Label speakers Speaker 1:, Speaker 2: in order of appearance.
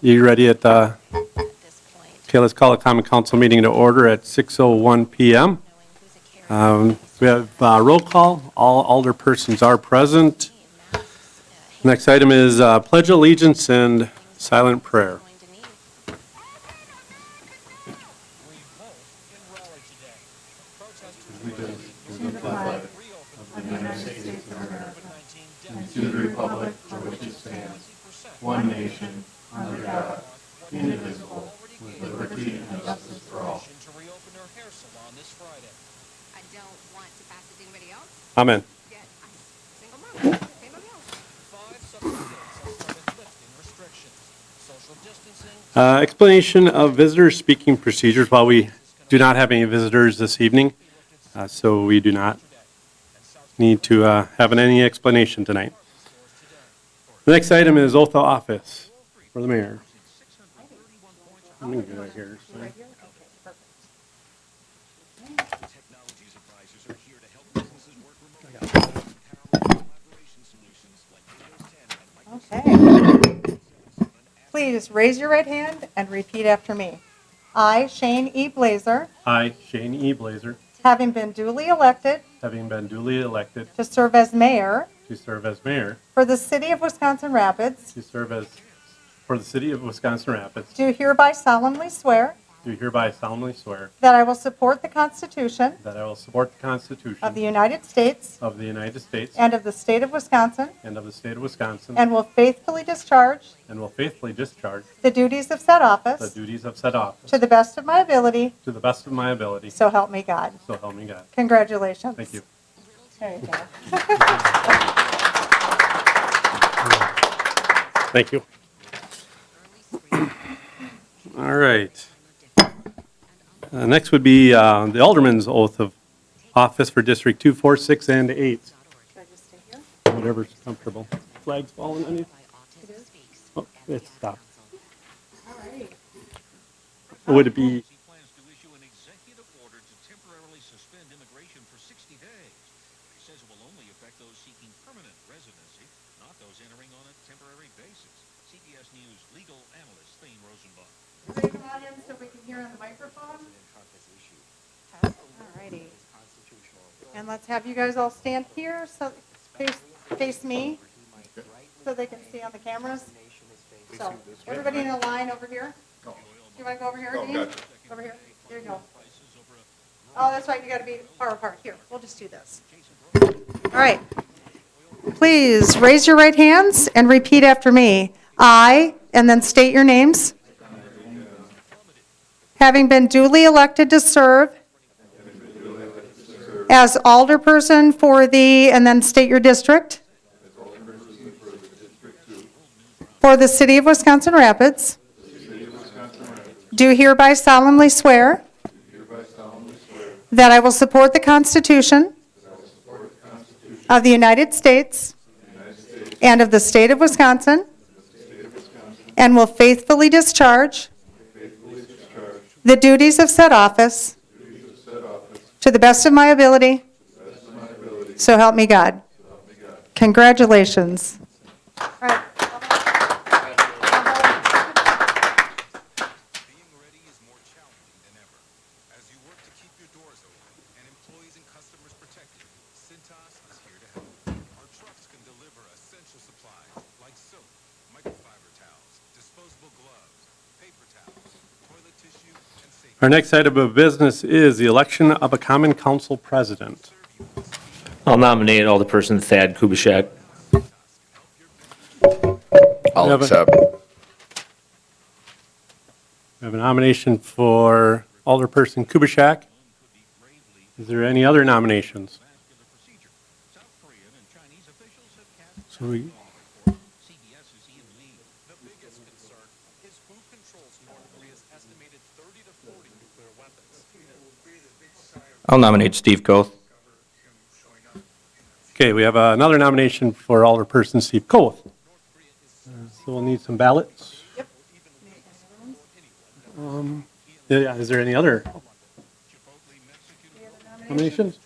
Speaker 1: You ready at the, okay, let's call a common council meeting to order at 6:01 PM. Um, We have uh, roll call, all alderpersons are present. Next item is uh, pledge allegiance and silent prayer.
Speaker 2: to reopen her hair salon this Friday.
Speaker 3: I don't want to pass it to anybody else,
Speaker 1: Amen.
Speaker 3: yet I'm single mom, anybody else.
Speaker 2: Five subsequent days have started lifting restrictions. Social distancing,
Speaker 1: Uh, Explanation of visitor speaking procedures, while we do not have any visitors this evening, uh, so we do not need to uh, have any explanation tonight. The next item is oath of office for the mayor. Let me get out here.
Speaker 4: Technologies advisors are here to help businesses work remotely. Power collaboration solutions like Windows 10 and Microsoft
Speaker 5: Okay. Please raise your right hand and repeat after me. I, Shane E. Blazer,
Speaker 1: I, Shane E. Blazer,
Speaker 5: having been duly elected
Speaker 1: having been duly elected
Speaker 5: to serve as mayor
Speaker 1: to serve as mayor,
Speaker 5: for the city of Wisconsin Rapids,
Speaker 1: to serve as, for the city of Wisconsin Rapids,
Speaker 5: do hereby solemnly swear
Speaker 1: do hereby solemnly swear
Speaker 5: that I will support the Constitution
Speaker 1: that I will support the Constitution
Speaker 5: of the United States
Speaker 1: of the United States
Speaker 5: and of the state of Wisconsin,
Speaker 1: and of the state of Wisconsin,
Speaker 5: and will faithfully discharge
Speaker 1: and will faithfully discharge
Speaker 5: the duties of said
Speaker 1: the
Speaker 5: office
Speaker 1: duties of said office
Speaker 5: to the best of my ability,
Speaker 1: to the best of my ability,
Speaker 5: so help me God.
Speaker 1: so help me God.
Speaker 5: Congratulations.
Speaker 1: Thank you.
Speaker 5: There you go.
Speaker 1: Thank you. All right. Uh, Next would be uh, the Alderman's oath of office for District 2, 4, 6, and 8,
Speaker 5: Should I just stay here?
Speaker 1: whatever's comfortable. Flag's falling on you? Oh, it stopped. Would it be,
Speaker 4: He plans to issue an executive order to temporarily suspend immigration for 60 days. He says it will only affect those seeking permanent residency, not those entering on a temporary basis. CBS News legal analyst Thane Rosenbaum.
Speaker 5: Raise your hand so we can hear on the microphone. Alrighty. And let's have you guys all stand here, so face, face me, so they can see on the cameras. So, everybody in a line over here. Do you want to go over here, Dean? Over here, there you go. Oh, that's right, you got to be far apart. Here, we'll just do this. All right. Please raise your right hands and repeat after me. I, and then state your names. Having been duly elected to serve as alderperson for the, and then state your district. For the city of Wisconsin Rapids. Do hereby solemnly swear that I will support the Constitution of the United States and of the state of Wisconsin and will faithfully discharge the duties of said office. To the best of my ability. So help me God. Congratulations.
Speaker 4: Being ready is more challenging than ever. As you work to keep your doors open and employees and customers protected, Cintas is here to help. Our trucks can deliver essential supplies like soap, microfiber towels, disposable gloves, paper towels, toilet tissue, and safety.
Speaker 1: our next item of business is the election of a common council president.
Speaker 6: I'll nominate Alderperson Thad Kubaschak.
Speaker 7: I'll
Speaker 1: Evan.
Speaker 7: accept.
Speaker 1: We have a nomination for Alderperson Kubaschak. Is there any other nominations? So we,
Speaker 4: CBS is Ian Lee.
Speaker 2: the biggest concern is who controls North Korea's estimated 30 to 40 nuclear weapons.
Speaker 6: I'll nominate Steve Koth.
Speaker 1: okay, we have another nomination for Alderperson Steve Coe. So we'll need some ballots. Um, Yep. Yeah, is there any other nominations?